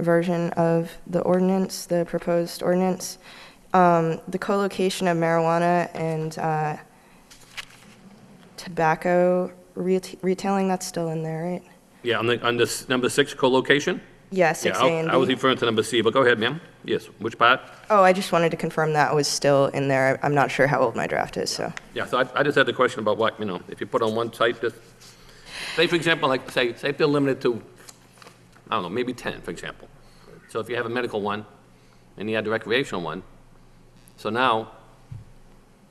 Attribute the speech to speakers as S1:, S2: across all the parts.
S1: version of the ordinance, the proposed ordinance. Um, The co-location of marijuana and uh, tobacco reta- retailing, that's still in there, right?
S2: Yeah, on the, on this, number six, co-location?
S1: Yeah,
S2: Yeah,
S1: 6A
S2: I-
S1: and
S2: I was e-,
S1: B.
S2: referring to number C, but go ahead, ma'am. Yes, which part?
S1: Oh, I just wanted to confirm that was still in there. I'm not sure how old my draft is, so.
S2: Yeah, so I, I just had the question about what, you know, if you put on one site, just, say, for example, like, say, say if they're limited to, I don't know, maybe 10, for example. So if you have a medical one, and you had the recreational one, so now,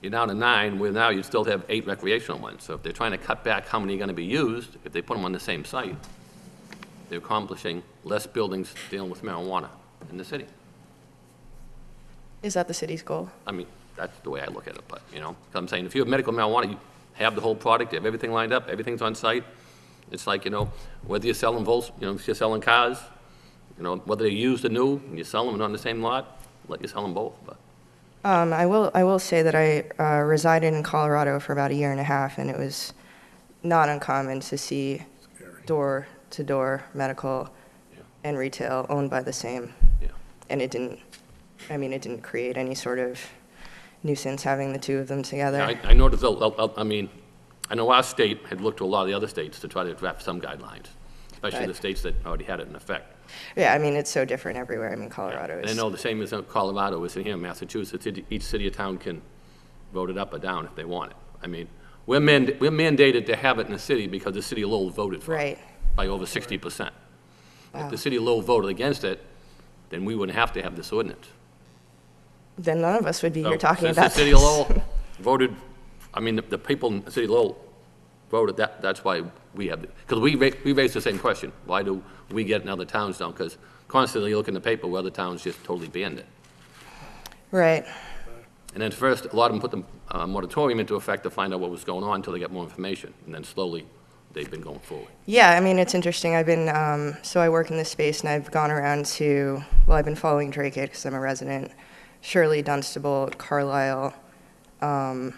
S2: you're down to nine, where now you still have eight recreational ones. So if they're trying to cut back how many are gonna be used, if they put them on the same site, they're accomplishing less buildings dealing with marijuana in the city.
S1: Is that the city's goal?
S2: I mean, that's the way I look at it, but, you know, 'cause I'm saying, if you have medical marijuana, you have the whole product, you have everything lined up, everything's on site. It's like, you know, whether you're selling Volks, you know, if you're selling cars, you know, whether they're used or new, and you sell them on the same lot, let you sell them both, but,
S1: Um, I will, I will say that I uh, resided in Colorado for about a year and a half, and it was not uncommon to see door-to-door medical
S2: Yeah.
S1: and retail owned by the same.
S2: yeah.
S1: And it didn't, I mean, it didn't create any sort of nuisance having the two of them together.
S2: I, I noticed, a- a- a- I mean, I know our state had looked to a lot of the other states to try to draft some guidelines, especially the
S1: Right.
S2: states that already had it in effect.
S1: Yeah, I mean, it's so different everywhere. I mean, Colorado
S2: And I
S1: is,
S2: know the same as in Colorado is in here, Massachusetts, each- each city or town can vote it up or down if they want it. I mean, we're mand- we're mandated to have it in the city because the city of Lowell voted for it.
S1: Right.
S2: By over sixty percent. If
S1: Wow.
S2: the city of Lowell voted against it, then we wouldn't have to have this ordinance.
S1: then none of us would be
S2: So,
S1: here talking
S2: since
S1: about
S2: the Oh, city of
S1: this.
S2: Lowell voted, I mean, the- the people in the city of Lowell voted, that, that's why we have, because we, ra- we raised the same question. Why do we get it and other towns don't? Because constantly you look in the paper where other towns just totally banned it.
S1: Right.
S2: And then first, a lot of them put the uh, moratorium into effect to find out what was going on until they got more information. And then slowly, they've been going forward.
S1: Yeah, I mean, it's interesting. I've been, um, so I work in this space and I've gone around to, well, I've been following Drake because I'm a resident, Shirley, Dunstable, Carlisle. Um,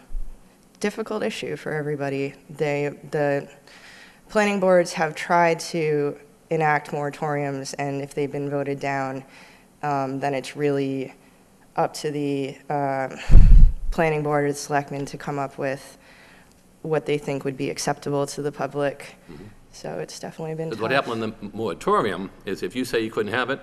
S1: difficult issue for everybody. They, the planning boards have tried to enact moratoriums and if they've been voted down, um, then it's really up to the, uh, planning board or the selectmen to come up with what they think would be acceptable to the public. So it's definitely been
S2: Because Mm-hmm. what
S1: tough.
S2: happened in the moratorium is if you say you couldn't have it,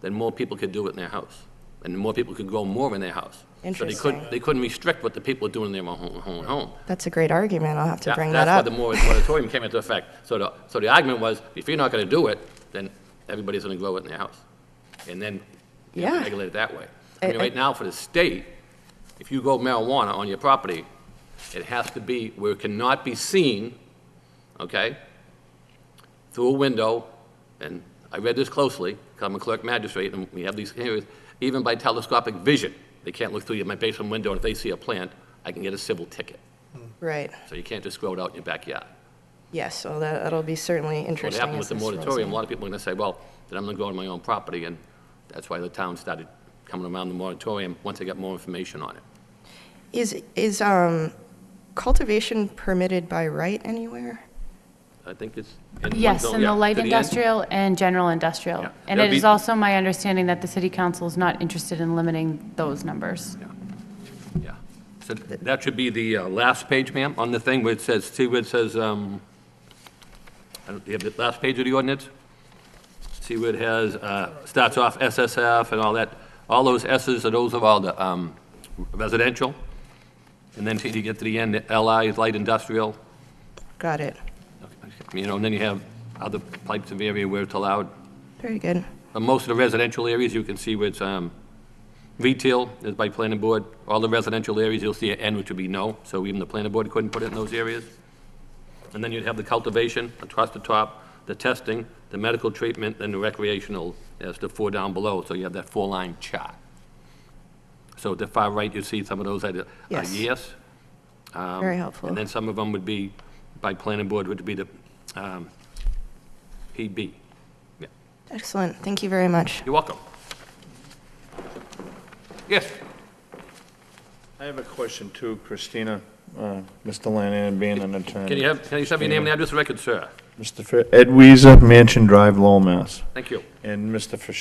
S2: then more people could do it in their house. And more people could grow more in their house. So they
S1: Interesting.
S2: couldn't, they couldn't restrict what the people were doing in their own, own home.
S1: That's a great argument. I'll have to
S2: Yeah,
S1: bring that up.
S2: That's why the mor- moratorium came into effect. So the, so the argument was, if you're not going to do it, then everybody's going to grow it in their house. And then you have to
S1: Yeah.
S2: regulate it that way.
S1: I-
S2: I
S1: I-
S2: mean, right now, for the state, if you grow marijuana on your property, it has to be where it cannot be seen, okay, through a window, and I read this closely, 'cause I'm a clerk magistrate, and we have these hearings, even by telescopic vision, they can't look through your- my basement window, and if they see a plant, I can get a civil ticket.
S1: Right.
S2: So you can't just grow it out in your backyard.
S1: Yes, well, that, that'll be certainly
S2: What
S1: interesting.
S2: happened
S1: as
S2: with the
S1: this rolls
S2: moratorium,
S1: in.
S2: a lot of people are going to say, well, then I'm going to go on my own property, and that's why the town started coming around the moratorium once they got more information on it.
S1: Is, is, um, cultivation permitted by right anywhere?
S2: I think it's. in one
S3: Yes,
S2: zone,
S3: in
S2: yeah,
S3: the
S2: to
S3: light
S2: end.
S3: industrial and general
S2: Yeah.
S3: industrial. And
S2: That'd
S3: it is
S2: be-
S3: also my understanding that the city council is not interested in limiting those numbers.
S2: Yeah, yeah. So that should be the uh, last page, ma'am, on the thing where it says, see where it says, um, I don't, do you have the last page of the ordinance? See where it has, uh, starts off SSF and all that, all those S's are those of all the um, residential? And then till you get to the end, LI is light industrial,
S1: Got it.
S2: you know, and then you have other types of area where it's allowed.
S1: Very good.
S2: Uh, Most of the residential areas, you can see where it's, um, retail is by planning board. All the residential areas, you'll see an N, which would be no, so even the planning board couldn't put it in those areas. And then you'd have the cultivation across the top, the testing, the medical treatment, and the recreational as the four down below, so you have that four-line chart. So at the far right, you see some of those that are are
S1: Yes.
S2: yes. um,
S1: Very helpful.
S2: And then some of them would be by planning board, would be the, um, PB. Yeah.
S1: Excellent. Thank you very much.
S2: You're welcome. Yes,
S4: I have a question too, Christina, uh, Mr. Lannan being an attorney.
S2: can you have, can you have your name and address for the record, sir?
S4: Mr. Fer- Ed Weezer, Mansion Drive, Lowell, Mass.
S2: Thank you.
S4: And Mr. Fish.